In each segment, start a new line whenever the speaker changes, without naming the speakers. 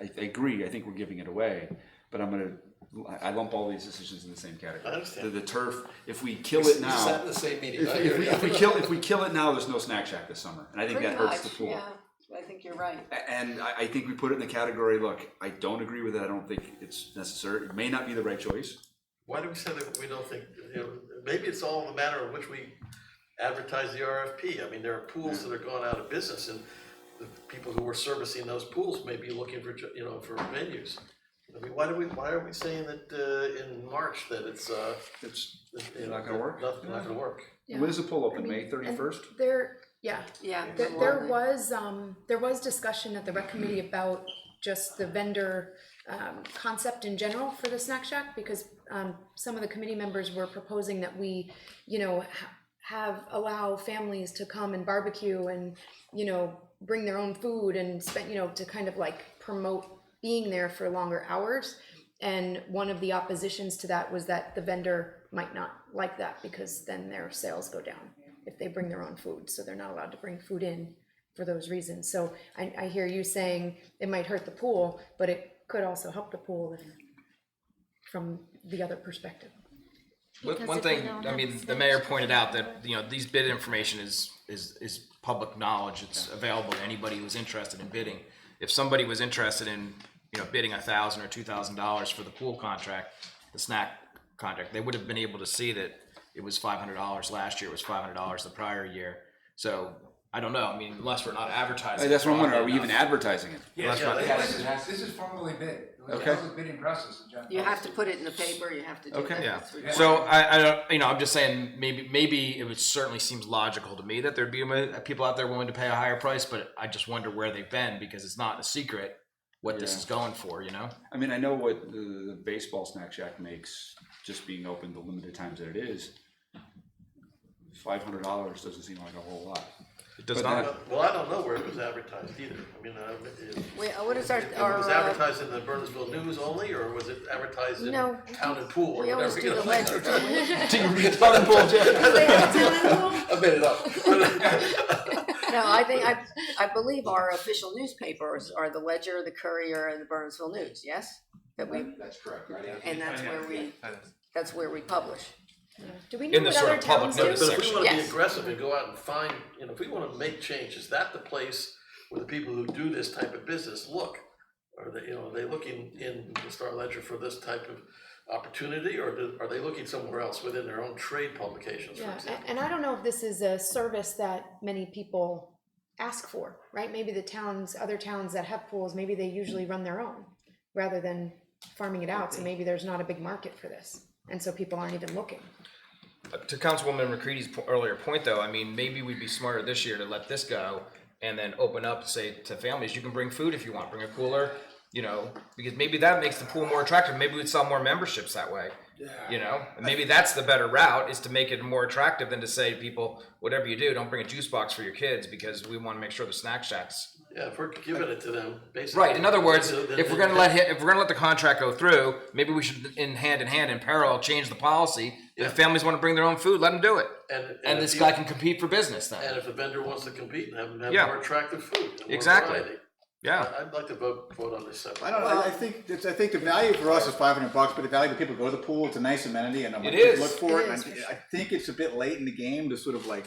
I, I agree, I think we're giving it away, but I'm gonna, I I lump all these decisions in the same category.
I understand.
The, the turf, if we kill it
Is that
now,
in the same meeting?
if,
I
if
hear
we,
you.
if we kill, if we kill it now, there's no snack shack this summer, and I think that
Pretty
hurts the
much,
pool.
Yeah, I think you're right.
A- And I, I think we put it in the category, look, I don't agree with it, I don't think it's necessary, it may not be the right choice.
Why do we say that we don't think, you know, maybe it's all a matter of which we advertise the RFP. I mean, there are pools that are gone out of business and the people who are servicing those pools may be looking for, ju- you know, for venues. I mean, why do we, why are we saying that, uh, in March that it's, uh,
It's,
that, you
It's
know,
not gonna work?
Not, not gonna work.
Yeah.
when is the pull open,
I mean,
May thirty-first?
There, yeah,
Yeah.
there,
it's
there
lovely.
was, um, there was discussion at the rec committee about just the vendor, um, concept in general for the snack shack, because, um, some of the committee members were proposing that we, you know, ha- have, allow families to come and barbecue and, you know, bring their own food and spend, you know, to kind of like promote being there for longer hours. And one of the oppositions to that was that the vendor might not like that because then their sales go down if they bring their own food, so they're not allowed to bring food in for those reasons. So I, I hear you saying it might hurt the pool, but it could also help the pool if, from the other perspective.
One,
Because
one
if they
thing,
don't
I
have
mean, the
snitch,
mayor
they
pointed
don't
out that,
have-
you know, these bid information is, is, is public knowledge, it's available to anybody who's interested in bidding. If somebody was interested in, you know, bidding a thousand or two thousand dollars for the pool contract, the snack contract, they would have been able to see that it was five hundred dollars last year, it was five hundred dollars the prior year. So, I don't know, I mean, unless we're not advertising.
That's what I'm wondering, are we
broadly
even
enough.
advertising it?
Unless we're not
Yeah,
This
advertising.
is, this is formally bid.
Okay.
This is a bidding process. in general.
You have to put it in the paper, you have to do
Okay.
that.
Yeah.
that's required.
So I, I don't, you know, I'm just saying maybe maybe it would certainly seems logical to me that there'd be a- people out there willing to pay a higher price, but I just wonder where they've been because it's not a secret what this
Yeah.
is going for, you know.
I mean, I know what the, the baseball snack shack makes, just being open the limited times that it is. Five hundred dollars doesn't seem like a whole lot.
It does
But
not.
then-
uh, Well, I don't know where it was advertised either. I mean, uh, it-
Wait, uh, what is our,
It
our,
was
uh,
advertised in the Burnsville News only, or was it advertised in
No.
Town and Pool or
we always
whatever? you
do the
know?
ledger, don't we?
I made it up.
No, I think, I, I believe our official newspapers are the Ledger, the Courier, and the Burnsville News, yes? That we,
That's correct, right?
and that's where we, that's where we publish.
Do we know
In the
what
sort
other
of public
towns do?
notice
But if we
section.
wanna be
Yes.
aggressive and go out and find, you know, if we wanna make change, is that the place where the people who do this type of business look? Are they, you know, are they looking in the Star Ledger for this type of opportunity, or do- are they looking somewhere else within their own trade publications, for
Yeah,
example?
a- and I don't know if this is a service that many people ask for, right? Maybe the towns, other towns that have pools, maybe they usually run their own rather than farming it out, so maybe there's not a big market for this. And so people aren't even looking.
To Councilwoman McCready's po- earlier point, though, I mean, maybe we'd be smarter this year to let this go and then open up, say, to families, you can bring food if you want, bring a cooler, you know, because maybe that makes the pool more attractive. Maybe we'd sell more memberships that way. You know, and maybe that's the better route is to make it more attractive than to say to people, whatever you do, don't bring a juice box for your kids because we want to make sure the snack shacks
Yeah, if we're giving it to them, basically.
Right. In other words,
then-
if
then-
we're going to let hi- if we're going to let the contract go through, maybe we should, in hand in hand, in parallel, change the policy. If families want to bring their own food, let them do it.
And-
and,
and
this
if
guy
you-
can compete for business then.
And if the vendor wants to compete and have them have
Yeah.
more attractive food. and more
Exactly.
variety.
yeah.
I- I'd like to vote, vote on this separate.
I don't know. I- I think it's, I think the value for us is five hundred bucks, but the value to people who go to the pool, it's a nice amenity, and I'm like,
It is.
look for
It
it. and
is,
I,
for
I think it's a bit late in the game to sort of like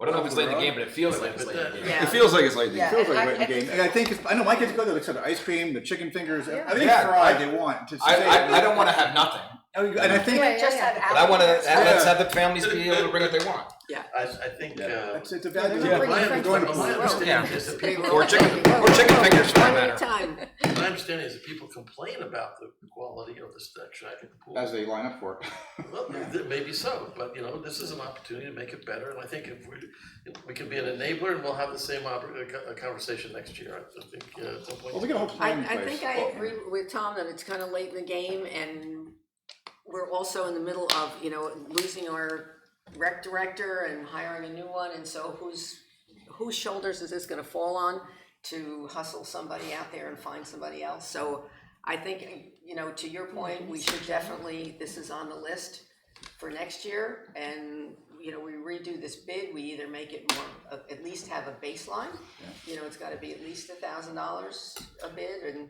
Well, I don't know if it's late in the game, but it feels like it's
But
late in the
that-
game.
Yeah.
It feels like it's late.
Yeah.
feels like
I-
late in the
I-
game. And I think it's, I know my kids go there. They said the ice cream, the chicken fingers, I think
Yeah,
fried
I-
they want. Just
I,
say-
I, I don't want to have nothing,
And I think
Yeah,
Just have
but I want to
applicants.
let's have the families be able to bring what they want.
I, I think, uh,
it's, it's a value.
Yeah.
my
Bring
my
friends along.
understanding is that people,
Or chicken,
Whoa,
or chicken
whoa,
fingers for that
one at a
matter.
time.
my understanding is that people complain about the quality of the snack shack at the pool.
As they line up for it.
Well, maybe so, but you know, this is an opportunity to make it better, and I think if we, if we can be an enabler, and we'll have the same oppor- uh, co- uh, conversation next year, I think, uh, at some point.
Well, we got a whole
I,
plan in
I
place.
think I agree with Tom that it's kind of late in the game and we're also in the middle of, you know, losing our rec director and hiring a new one, and so whose, whose shoulders is this gonna fall on to hustle somebody out there and find somebody else? So I think, you know, to your point, we should definitely, this is on the list for next year, and, you know, we redo this bid, we either make it more, uh, at least have a baseline. You know, it's gotta be at least a thousand dollars a bid, and